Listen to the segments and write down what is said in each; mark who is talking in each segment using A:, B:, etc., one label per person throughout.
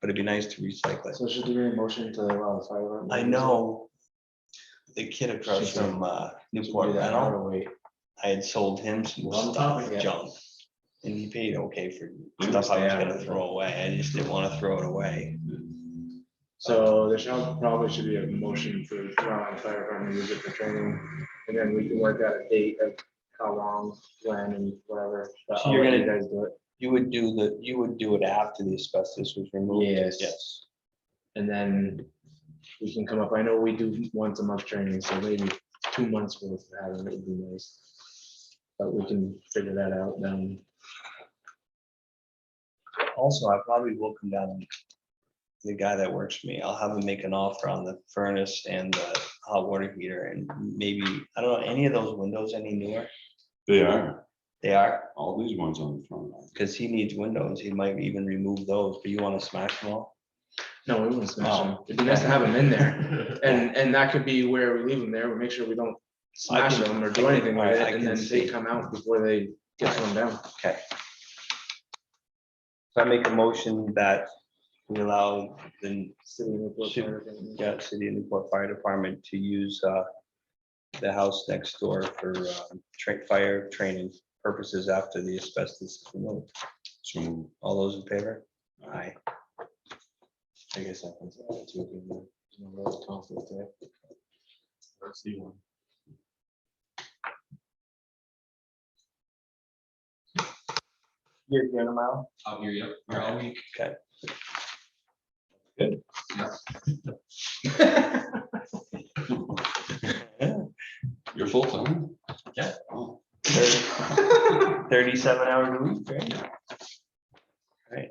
A: but it'd be nice to recycle it.
B: So should there be a motion to allow the fire department?
A: I know the kid across
B: Should we-
A: from uh,
B: to do
A: Newport
B: that,
A: Rental,
B: or wait?
A: I had sold him some
B: Well,
A: stuff,
B: yeah.
A: junk. And he paid okay for stuff I was gonna throw away. I just didn't wanna throw it away. Mm-hmm.
B: So there shall, probably should be a motion for allowing the fire department to use it for training, and then we can work out a date of how long, when, and whatever. but
A: So
B: I'll
A: you're
B: let
A: gonna-
B: You guys do it,
A: You would do the, you would do it after the asbestos was removed?
B: Yes.
A: Yes.
B: and then we can come up, I know we do once a month training, so maybe two months worth of having it would be nice. But we can figure that out then.
A: Also, I probably will come down. and- The guy that works for me, I'll have him make an offer on the furnace and the hot water heater and maybe, I don't know, any of those windows any newer?
C: They are,
A: They are,
C: all these ones on the front. line.
A: because he needs windows. He might even remove those, but you want to smash them all?
B: No, we wouldn't smash them.
A: Oh.
B: It'd be nice to have them in there. And, and that could be where we leave them there. We make sure we don't smash
A: can-
B: them or do anything with
A: alright, I
B: it. And
A: can
B: then
A: see.
B: they come out before they get thrown down.
A: So I make a motion that we allow the
B: City of Newport
A: Should-
B: Fire Department.
A: yeah, City of Newport Fire Department to use uh, the house next door for uh, tra- fire training purposes after the asbestos. is removed.
C: So,
A: All those in favor? Aye.
B: I guess that one's- that's what we do. No real conflict there. Let's see one.
A: You're here tomorrow?
D: I'll hear you. You're all week.
A: Okay.
D: Good.
C: you're full time?
D: Yeah.
C: Oh,
A: Thirty- Thirty-seven hours a week, right? Right.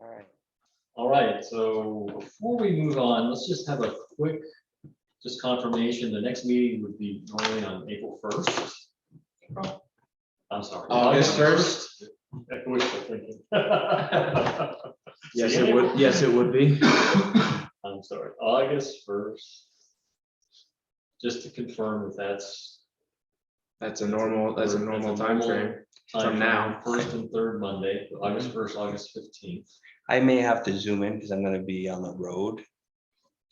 A: All right.
D: All right, so before we move on, let's just have a quick, just confirmation, the next meeting would be normally on April first. I'm sorry.
B: August 1st?
D: That was the thinking. I'm
B: Yes, it would, yes, it would be.
D: sorry, August first. Just to confirm if that's.
B: That's a normal, that's a
D: That's a
B: normal
D: normal-
B: timeframe. From now.
D: First and third Monday, August first, August fifteenth.
A: I may have to zoom in because I'm gonna be on the road.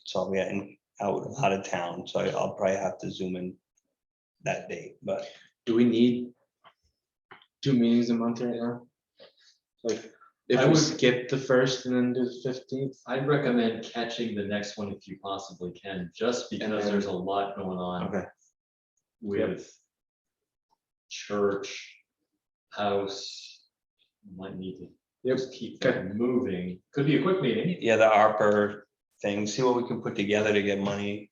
A: So I'll be in- out, out of town, so I- I'll probably have to zoom in that day, but
B: Do we need two meetings a month right now? Like,
D: I
B: if we
D: would-
B: skip the first and then do the fifteenth?
D: I'd recommend catching the next one if you possibly can, just because there's a lot going on
B: Okay.
D: with church, house, might need to
B: Yep.
D: just keep that moving. Could be a quick meeting.
A: yeah, the ARPA thing, see what we can put together to get money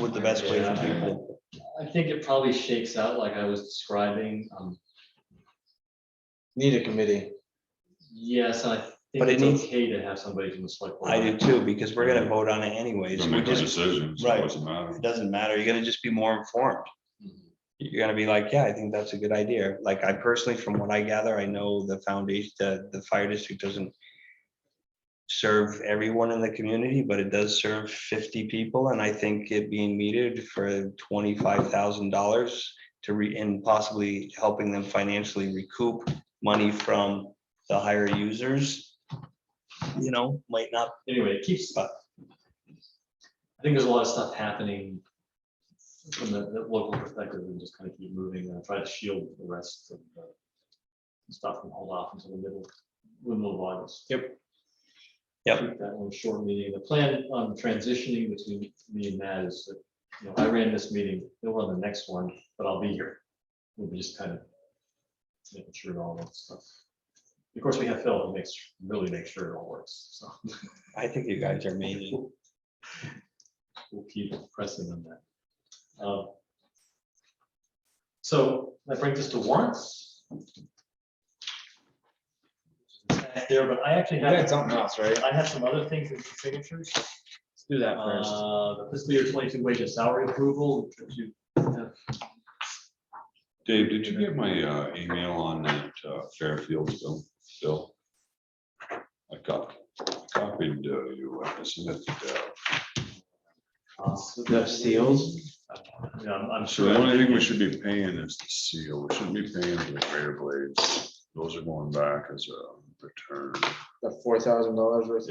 A: with the best way for people.
D: I think it probably shakes out like I was describing. um,
B: Need a committee.
D: Yes, I think
A: But it
D: it's
A: needs-
D: okay to have somebody from the select. board.
A: I do too, because we're gonna vote on it anyways.
C: You're
A: We
C: making
A: just,
C: decisions, so
A: right.
C: it doesn't matter.
A: it doesn't matter. You're gonna just be more informed.
D: Mhm.
A: You're gonna be like, yeah, I think that's a good idea. Like I personally, from what I gather, I know the foundation, the, the fire district doesn't serve everyone in the community, but it does serve fifty people, and I think it being metered for twenty-five thousand dollars to re, and possibly helping them financially recoup money from the higher users, you know, might not,
D: Anyway, it keeps, I think there's a lot of stuff happening from the, the local perspective and just kind of keep moving and try to shield the rest of the stuff and hold off until the middle, the middle of August.
B: Yep.
A: Yep.
D: Keep That one short meeting. The plan on transitioning between me and Matt is that, you know, I ran this meeting, he'll run the next one, but I'll be here. We'll be just kind of making sure all that stuff. Of course, we have Phil who makes, really make sure it all works, so
A: I think you guys are amazing.
D: we'll keep pressing on that. Um, So that brings us to warrants. There, but I actually
B: You got
D: have,
B: something else, right?
D: I have some other things in signatures.
B: Let's do that first.
D: Uh, the Fiscal year twenty-two wage and salary approval, which you have
C: Dave, did you get my uh, email on that uh, Fairfield bill, bill? I cop- copied uh, you, I sent it to Dale.
D: possibly-
B: The seals?
D: Yeah, I'm I'm
C: So
D: sure.
C: the only thing we should be paying is the seal, we shouldn't be paying for the rear blades, those are going back as a return.
B: the four thousand dollars worth